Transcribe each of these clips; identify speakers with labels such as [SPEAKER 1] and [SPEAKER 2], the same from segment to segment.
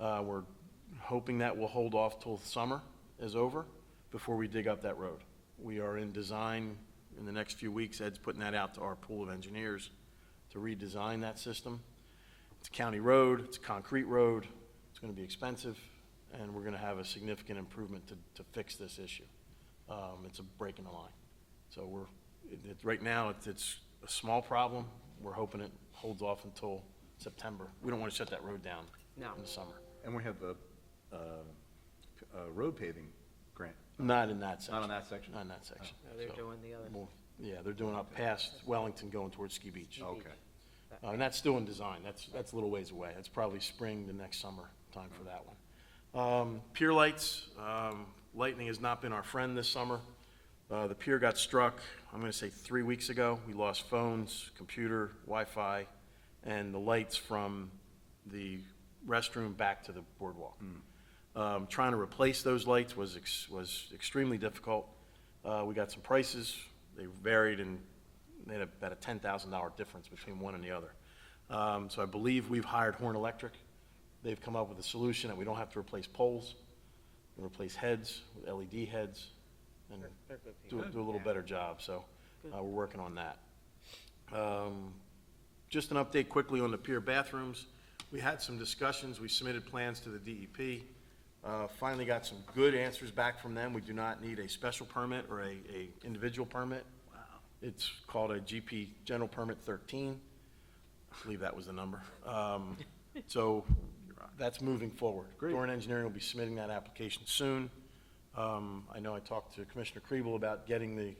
[SPEAKER 1] Uh, We're hoping that will hold off till summer is over before we dig up that road. We are in design in the next few weeks. Ed's putting that out to our pool of engineers to redesign that system. It's a county road, it's a concrete road, it's gonna be expensive, and we're gonna have a significant improvement to, to fix this issue. Um, it's a break in the line. So we're, it, it, right now, it's, it's a small problem. We're hoping it holds off until September. We don't wanna shut that road down
[SPEAKER 2] No.
[SPEAKER 1] in the summer.
[SPEAKER 3] And we have the uh, p- uh, road paving grant.
[SPEAKER 1] Not in that section.
[SPEAKER 3] Not on that section?
[SPEAKER 1] Not in that section.
[SPEAKER 2] No, they're
[SPEAKER 1] So,
[SPEAKER 2] doing the other.
[SPEAKER 1] we'll- Yeah, they're doing up past Wellington going towards Ski Beach.
[SPEAKER 2] Oh.
[SPEAKER 3] Okay.
[SPEAKER 1] Uh, And that's still in design, that's, that's a little ways away, that's probably spring to next summer time for that one. Um, Pier lights, um, lightning has not been our friend this summer. Uh, The pier got struck, I'm gonna say three weeks ago, we lost phones, computer, Wi-Fi, and the lights from the restroom back to the boardwalk.
[SPEAKER 3] Hmm.
[SPEAKER 1] Um, Trying to replace those lights was, ex- was extremely difficult. Uh, We got some prices, they varied in they had about a ten thousand dollar difference between one and the other. Um, so I believe we've hired Horn Electric. They've come up with a solution that we don't have to replace poles, we replace heads with LED heads, and
[SPEAKER 2] They're good people.
[SPEAKER 1] do, do a little better job, so, uh, we're working on that. Um, Just an update quickly on the pier bathrooms. We had some discussions, we submitted plans to the DEP. Uh, Finally got some good answers back from them. We do not need a special permit or a, a individual permit. Wow. It's called a GP General Permit thirteen. I believe that was the number. Um, So that's moving forward.
[SPEAKER 3] Great.
[SPEAKER 1] Doran Engineering will be submitting that application soon. Um, I know I talked to Commissioner Kriebel about getting the,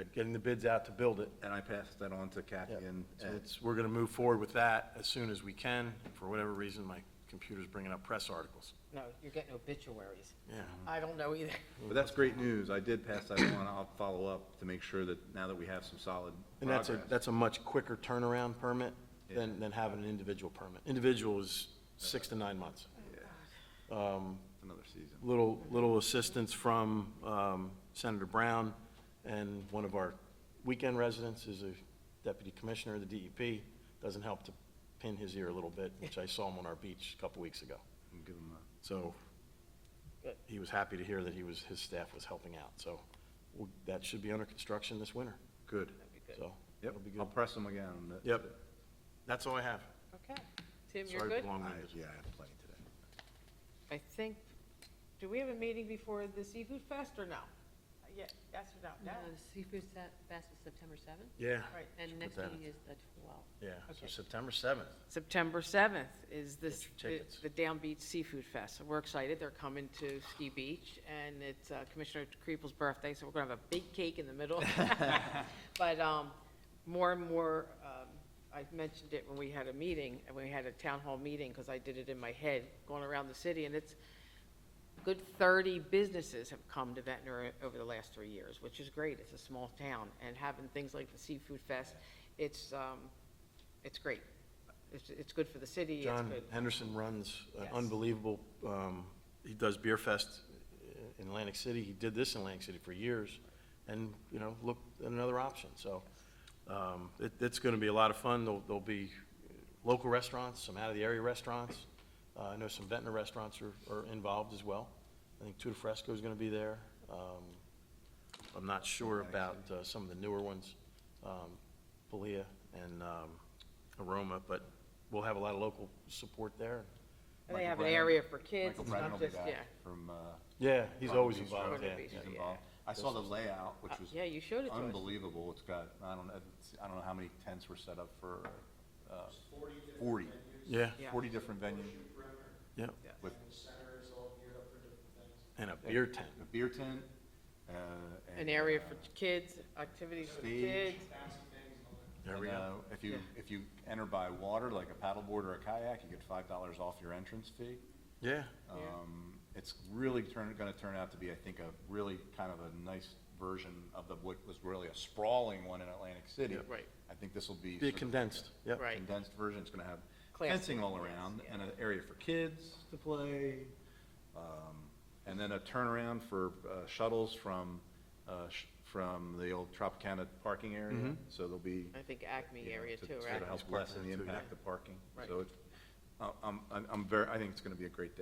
[SPEAKER 1] uh, getting the bids out to build it.
[SPEAKER 3] And I passed that on to Kathy
[SPEAKER 1] Yeah,
[SPEAKER 3] and
[SPEAKER 1] So
[SPEAKER 3] Ed.
[SPEAKER 1] it's, we're gonna move forward with that as soon as we can. For whatever reason, my computer's bringing up press articles.
[SPEAKER 2] No, you're getting obituaries.
[SPEAKER 1] Yeah.
[SPEAKER 2] I don't know either.
[SPEAKER 3] But that's great news. I did pass that on. I'll follow up to make sure that now that we have some solid
[SPEAKER 1] And that's a,
[SPEAKER 3] progress.
[SPEAKER 1] that's a much quicker turnaround permit than, than having an individual permit. Individual is six to nine months. um,
[SPEAKER 3] Another season.
[SPEAKER 1] Little, little assistance from um, Senator Brown and one of our weekend residents is a deputy commissioner of the DEP. Doesn't help to pin his ear a little bit, which I saw him on our beach a couple weeks ago.
[SPEAKER 3] And give 'em a-
[SPEAKER 1] So
[SPEAKER 2] Good.
[SPEAKER 1] he was happy to hear that he was, his staff was helping out. So we'll- that should be under construction this winter.
[SPEAKER 3] Good.
[SPEAKER 1] So
[SPEAKER 3] Yep,
[SPEAKER 1] it'll be
[SPEAKER 3] I'll
[SPEAKER 1] good.
[SPEAKER 3] press them again. on that.
[SPEAKER 1] Yep. That's all I have.
[SPEAKER 2] Okay. Tim,
[SPEAKER 1] Sorry
[SPEAKER 2] you're
[SPEAKER 1] for
[SPEAKER 2] good?
[SPEAKER 1] the
[SPEAKER 3] I-
[SPEAKER 1] long winded.
[SPEAKER 3] Yeah, I have plenty today.
[SPEAKER 2] I think, do we have a meeting before the seafood fest or no? Uh, Yeah, yes or
[SPEAKER 4] No,
[SPEAKER 2] no?
[SPEAKER 4] the Seafood Sa- Fest is September seventh,
[SPEAKER 1] Yeah,
[SPEAKER 2] Right.
[SPEAKER 4] and
[SPEAKER 1] Should
[SPEAKER 4] next
[SPEAKER 1] put that
[SPEAKER 4] meeting is the twelfth.
[SPEAKER 1] yeah. So
[SPEAKER 2] Okay.
[SPEAKER 1] September 7th.
[SPEAKER 2] September seventh is this,
[SPEAKER 1] Get your
[SPEAKER 2] the
[SPEAKER 1] tickets.
[SPEAKER 2] the Down Beach Seafood Fest. We're excited. They're coming to Ski Beach, and it's uh, Commissioner Kriebel's birthday, so we're gonna have a big cake in the middle. But, um, more and more, um, I mentioned it when we had a meeting, and we had a town hall meeting, because I did it in my head, going around the city, and it's, good 30 businesses have come to Ventnor over the last three years, which is great. It's a small town, and having things like the Seafood Fest, it's, um, it's great. It's, it's good for the city, it's
[SPEAKER 1] John
[SPEAKER 2] good.
[SPEAKER 1] Henderson runs an
[SPEAKER 2] Yes.
[SPEAKER 1] unbelievable, um, he does Beer Fest in Atlantic City. He did this in Atlantic City for years and, you know, looked at another option. So um, it, it's going to be a lot of fun. There'll, there'll be local restaurants, some out-of-the-area restaurants. Uh, I know some Ventnor restaurants are, are involved as well. I think Tutti Fresco is going to be there. Um, I'm not sure about uh, some of the newer ones, um, Palia and um, Aroma, but we'll have a lot of local support there.
[SPEAKER 2] And they have an
[SPEAKER 3] Michael Brennan-
[SPEAKER 2] area for kids,
[SPEAKER 3] Michael
[SPEAKER 2] it's
[SPEAKER 3] Brennan will
[SPEAKER 2] not
[SPEAKER 3] be
[SPEAKER 2] just,
[SPEAKER 3] back
[SPEAKER 2] yeah.
[SPEAKER 3] From, uh,
[SPEAKER 1] Yeah, he's
[SPEAKER 3] Front
[SPEAKER 1] always
[SPEAKER 3] Beach
[SPEAKER 1] involved,
[SPEAKER 2] Road.
[SPEAKER 1] yeah.
[SPEAKER 2] Front Beach.
[SPEAKER 3] he's
[SPEAKER 2] Yeah.
[SPEAKER 3] involved. I saw the layout, which
[SPEAKER 2] Uh,
[SPEAKER 3] was.
[SPEAKER 2] yeah, you showed it to us.
[SPEAKER 3] Unbelievable. It's got, I don't, know, it's- I don't know how many tents were set up for, uh, forty.
[SPEAKER 1] Yeah,
[SPEAKER 2] Yeah.
[SPEAKER 3] Forty different venues
[SPEAKER 1] yeah,
[SPEAKER 3] with
[SPEAKER 5] center is all geared up for different things.
[SPEAKER 1] and a beer tent.
[SPEAKER 3] a beer tent, uh. and,
[SPEAKER 2] An area
[SPEAKER 3] uh,
[SPEAKER 2] for kids, activities for
[SPEAKER 3] Stage.
[SPEAKER 2] kids.
[SPEAKER 5] Bouncy things, all that.
[SPEAKER 1] There
[SPEAKER 3] And,
[SPEAKER 1] we go.
[SPEAKER 3] uh, If you,
[SPEAKER 2] Yeah.
[SPEAKER 3] if you enter by water, like a paddleboard or a kayak, you get five dollars off your entrance fee.
[SPEAKER 1] Yeah,
[SPEAKER 2] Yeah.
[SPEAKER 3] Um, It's really turn, gonna turn out to be, I think, a really kind of a nice version of the, what was really a sprawling one in Atlantic City.
[SPEAKER 2] Yep. Right.
[SPEAKER 3] I think this will be.
[SPEAKER 1] be
[SPEAKER 3] sort of
[SPEAKER 1] condensed, yep.
[SPEAKER 2] Right.
[SPEAKER 3] Condensed version, it's gonna have
[SPEAKER 2] Class-
[SPEAKER 3] fencing all around,
[SPEAKER 2] yes,
[SPEAKER 3] and an area for kids to play, um, and then a turnaround for uh, shuttles from, uh, sh- from the old Tropicana parking area, so there'll be
[SPEAKER 2] I think Acme
[SPEAKER 3] you know,
[SPEAKER 2] area
[SPEAKER 3] to
[SPEAKER 2] too,
[SPEAKER 3] sort of
[SPEAKER 2] right?
[SPEAKER 3] help lessen the impact of parking.
[SPEAKER 2] Right.
[SPEAKER 3] So it's Uh, I'm, I'm- I'm very, I think it's going to be a great day.